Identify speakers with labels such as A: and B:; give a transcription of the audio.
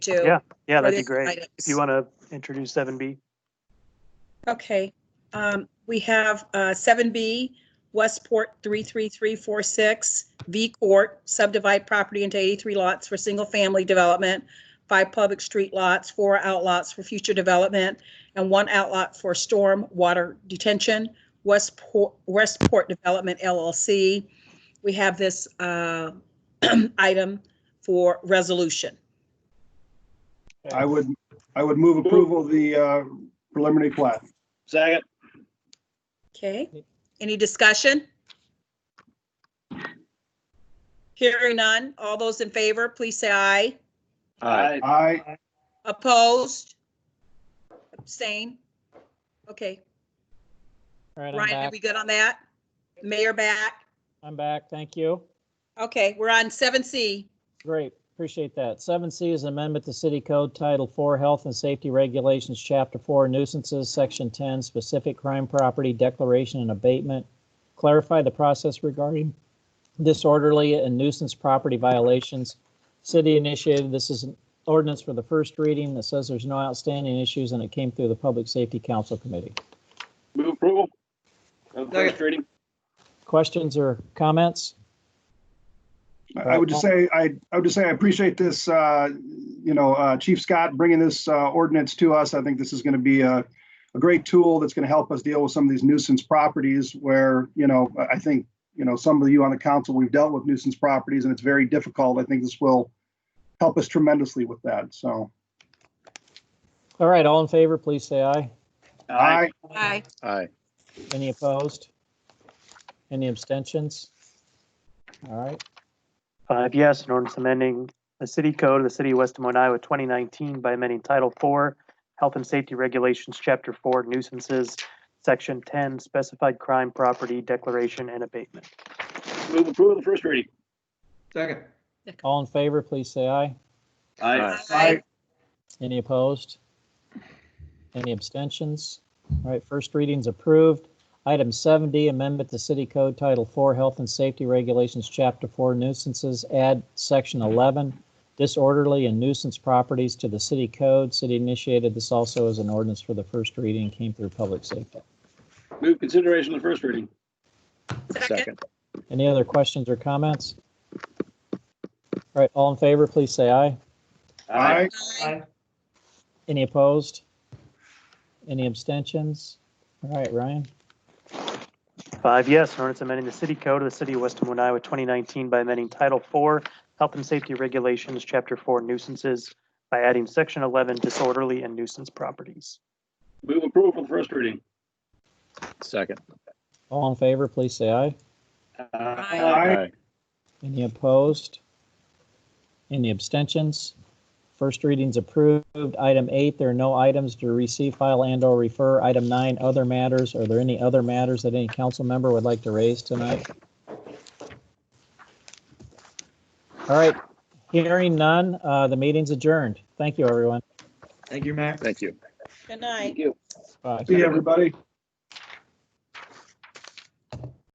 A: do.
B: Yeah,
A: for
B: that'd be
A: this
B: great.
A: item.
B: If you want to introduce seven B.
A: Okay, um, we have, uh, seven B, Westport three three three four six, V Court, subdivide property into eighty-three lots for single-family development, five public street lots, four outlots for future development, and one outlot for storm water detention, Westport, Westport Development LLC. We have this, uh, item for resolution.
C: I would, I would move approval of the uh, preliminary plat.
D: Second.
A: Okay, any discussion? Hearing none. All those in favor, please say aye.
D: Aye.
C: I,
A: Opposed? Abstain? Okay,
E: All right, I'm
A: Ryan, are
E: back.
A: we good on that? Mayor back?
E: I'm back. Thank you.
A: Okay, we're on seven C.
E: Great. Appreciate that. Seven C is an amendment to City Code Title Four Health and Safety Regulations, Chapter Four Nuisances, Section Ten, Specific Crime Property Declaration and Abatement. Clarify the process regarding disorderly and nuisance property violations. City initiated, this is an ordinance for the first reading that says there's no outstanding issues and it came through the Public Safety Council Committee.
D: Move approval. Of first reading.
E: Questions or comments?
C: I would just say, I, I would just say I appreciate this, uh, you know, uh, Chief Scott bringing this uh, ordinance to us. I think this is going to be a, a great tool that's going to help us deal with some of these nuisance properties where, you know, I- I think, you know, some of you on the council, we've dealt with nuisance properties and it's very difficult. I think this will help us tremendously with that. So,
E: All right, all in favor, please say aye.
C: I,
A: Aye.
D: Aye.
E: Any opposed? Any abstentions? All right,
B: Five yes, an ordinance amending the city code of the city of West Des Moines, Iowa, twenty nineteen by amending Title Four, Health and Safety Regulations, Chapter Four, Nuisances, Section ten, Specified Crime Property Declaration and Abatement.
D: Move approval of first reading.
F: Second.
E: all in favor, please say aye.
D: Aye.
C: Aye.
E: Any opposed? Any abstentions? All right, first reading's approved. Item 7D, amendment to City Code Title 4 Health and Safety Regulations, Chapter 4 nuisances, add Section 11, disorderly and nuisance properties to the city code. City initiated this also as an ordinance for the first reading, came through public safety.
D: Move consideration of first reading.
A: Second.
E: Any other questions or comments? All right, all in favor, please say aye.
C: I,
A: Aye.
E: Any opposed? Any abstentions? All right, Ryan,
B: Five yes, an ordinance amending the city code of the city of West Des Moines, Iowa, twenty nineteen by amending Title Four, Health and Safety Regulations, Chapter Four, Nuisances by adding Section eleven, Disorderly and Nuisance Properties.
D: Move approval of first reading.
G: Second.
E: all in favor, please say aye.
C: Aye.
E: Any opposed? Any abstentions? First reading's approved. Item eight, there are no items to receive, file, and/or refer. Item nine, other matters. Are there any other matters that any council member would like to raise tonight? All right, hearing none, uh, the meeting's adjourned. Thank you, everyone.
F: Thank you, Max.
G: Thank you.
A: Good night.
D: Thank you.
E: Bye.
C: see everybody.